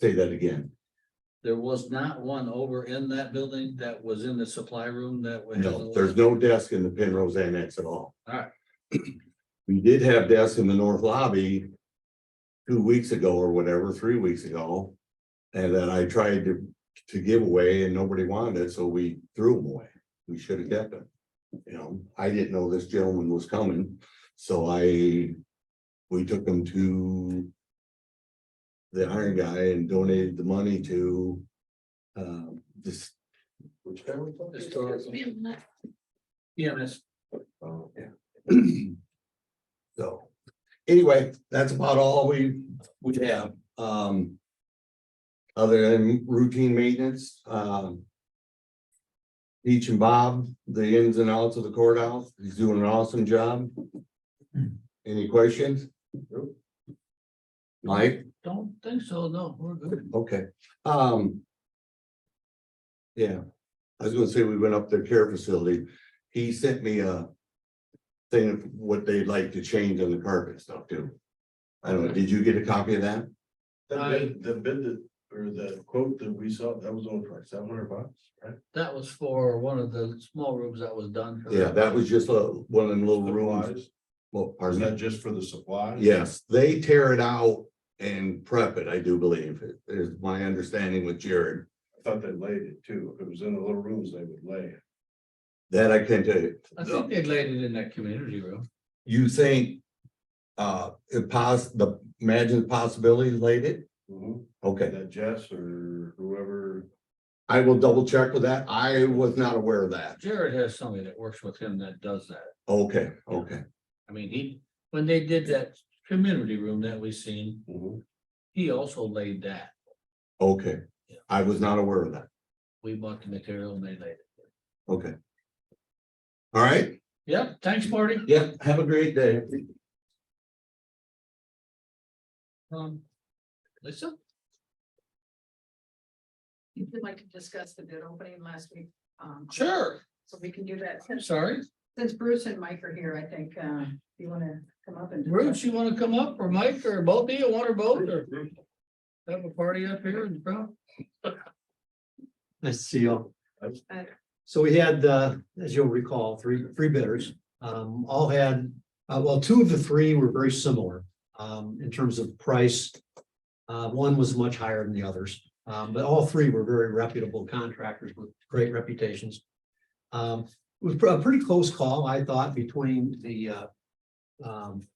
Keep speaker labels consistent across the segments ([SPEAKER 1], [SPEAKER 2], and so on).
[SPEAKER 1] Say that again.
[SPEAKER 2] There was not one over in that building that was in the supply room that was.
[SPEAKER 1] No, there's no desk in the Penrose Annex at all.
[SPEAKER 2] Alright.
[SPEAKER 1] We did have desks in the north lobby. Two weeks ago or whatever, three weeks ago. And then I tried to, to give away and nobody wanted it, so we threw them away. We should have kept them. You know, I didn't know this gentleman was coming, so I, we took them to. The iron guy and donated the money to, um, this. Which guy was that?
[SPEAKER 2] Historical. Yeah, that's,
[SPEAKER 1] Oh, yeah. So, anyway, that's about all we, we have, um. Other than routine maintenance, um. Peach and Bob, the ins and outs of the courthouse, he's doing an awesome job. Any questions? Mike,
[SPEAKER 2] don't think so, no, we're good.
[SPEAKER 1] okay, um. Yeah, I was gonna say we went up their care facility, he sent me a. Thing of what they'd like to change on the carpet stuff too. I don't know, did you get a copy of that?
[SPEAKER 3] That
[SPEAKER 2] I-
[SPEAKER 3] bid, the bid that, or the quote that we saw, that was only for seven hundred bucks, right?
[SPEAKER 2] That was for one of the small rooms that was done.
[SPEAKER 1] Yeah, that was just a, one of them little rooms,
[SPEAKER 3] Supplies.
[SPEAKER 1] well,
[SPEAKER 3] Is
[SPEAKER 1] pardon me.
[SPEAKER 3] that just for the supplies?
[SPEAKER 1] Yes, they tear it out and prep it, I do believe, is my understanding with Jared.
[SPEAKER 3] I thought they laid it too. If it was in the little rooms, they would lay it.
[SPEAKER 1] That I can tell you.
[SPEAKER 2] I think they laid it in that community room.
[SPEAKER 1] You think, uh, it pos, the, imagine possibilities laid it?
[SPEAKER 3] Mhm.
[SPEAKER 1] Okay.
[SPEAKER 3] That Jess or whoever,
[SPEAKER 1] I will double check with that. I was not aware of that.
[SPEAKER 2] Jared has somebody that works with him that does that.
[SPEAKER 1] Okay, okay.
[SPEAKER 2] I mean, he, when they did that community room that we seen,
[SPEAKER 3] Mhm.
[SPEAKER 2] he also laid that.
[SPEAKER 1] Okay, I was not aware of that.
[SPEAKER 2] We bought the material and they laid it.
[SPEAKER 1] Okay. All right,
[SPEAKER 2] Yep, thanks, Marty.
[SPEAKER 1] yeah, have a great day.
[SPEAKER 2] Um, Lisa?
[SPEAKER 4] You would like to discuss the bid opening last week. um,
[SPEAKER 2] Sure.
[SPEAKER 4] So we can do that
[SPEAKER 2] I'm
[SPEAKER 4] since,
[SPEAKER 2] sorry.
[SPEAKER 4] since Bruce and Mike are here, I think, uh, you wanna come up and.
[SPEAKER 2] Bruce, you wanna come up or Mike or both of you, one or both or? Have a party up here in front?
[SPEAKER 5] Nice to see you. all.
[SPEAKER 4] Hi.
[SPEAKER 5] So we had, uh, as you'll recall, three, three bidders, um, all had, uh, well, two of the three were very similar, um, in terms of price. Uh, one was much higher than the others, um, but all three were very reputable contractors with great reputations. Um, it was a pretty close call, I thought, between the, uh, um,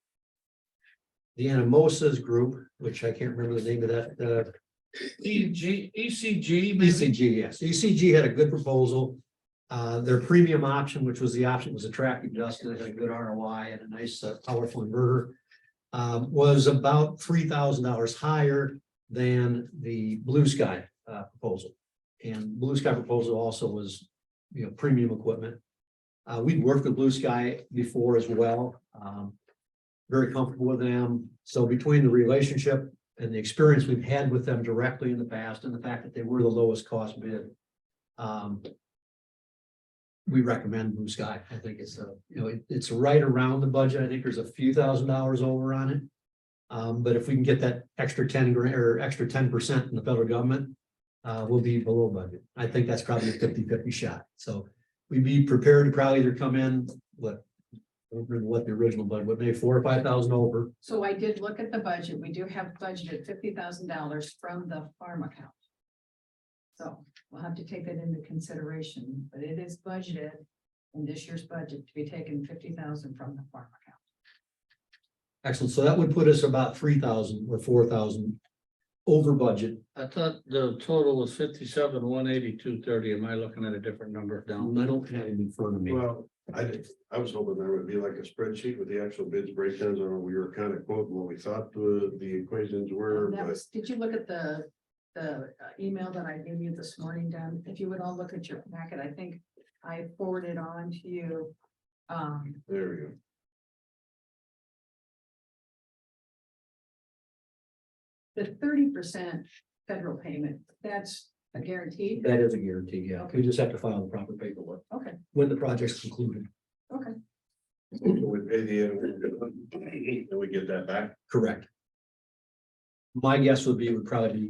[SPEAKER 5] the Anamosas group, which I can't remember the name of that, uh,
[SPEAKER 2] E G, E C G, maybe?
[SPEAKER 5] ECG, yes. ECG had a good proposal. Uh, their premium option, which was the option that was attractive to us, because it had a good ROI and a nice uh, powerful inverter. um, was about three thousand dollars higher than the Blue Sky uh, proposal. And Blue Sky proposal also was, you know, premium equipment. Uh, we'd worked with Blue Sky before as well. um, very comfortable with them. So between the relationship and the experience we've had with them directly in the past and the fact that they were the lowest cost bid. Um. We recommend Blue Sky. I think it's a, you know, it- it's right around the budget. I think there's a few thousand dollars over on it. Um, but if we can get that extra ten grand or extra ten percent from the federal government, uh, we'll be below budget. I think that's probably a 50-50 shot. So we'd be prepared to probably either come in, what? I don't remember What the original budget, what, maybe four or five thousand over.
[SPEAKER 4] So I did look at the budget. We do have budgeted fifty thousand dollars from the farm account. So we'll have to take that into consideration, but it is budgeted in this year's budget to be taken fifty thousand dollars from the farm account.
[SPEAKER 5] Excellent. So that would put us about three thousand or four thousand over budget.
[SPEAKER 2] I thought the total was fifty-seven, one eighty-two, thirty. Am I looking at a different number down?
[SPEAKER 5] Um, I don't have it in front of me.
[SPEAKER 3] well, I did, I was hoping there would be like a spreadsheet with the actual bids breakdowns on, we were kind of quoting what we thought the, the equations were,
[SPEAKER 4] That
[SPEAKER 3] but.
[SPEAKER 4] was, did you look at the, the uh, email that I gave you this morning, Don? If you would all look at your packet, I think I forwarded on to you. Um,
[SPEAKER 3] There we go.
[SPEAKER 4] the thirty percent federal payment, that's a guarantee.
[SPEAKER 5] That is a guarantee, yeah. We just have to file the proper paperwork.
[SPEAKER 4] Okay.
[SPEAKER 5] When the project's concluded.
[SPEAKER 3] So We pay the, and we get that back.
[SPEAKER 5] Correct. My guess would be it would probably be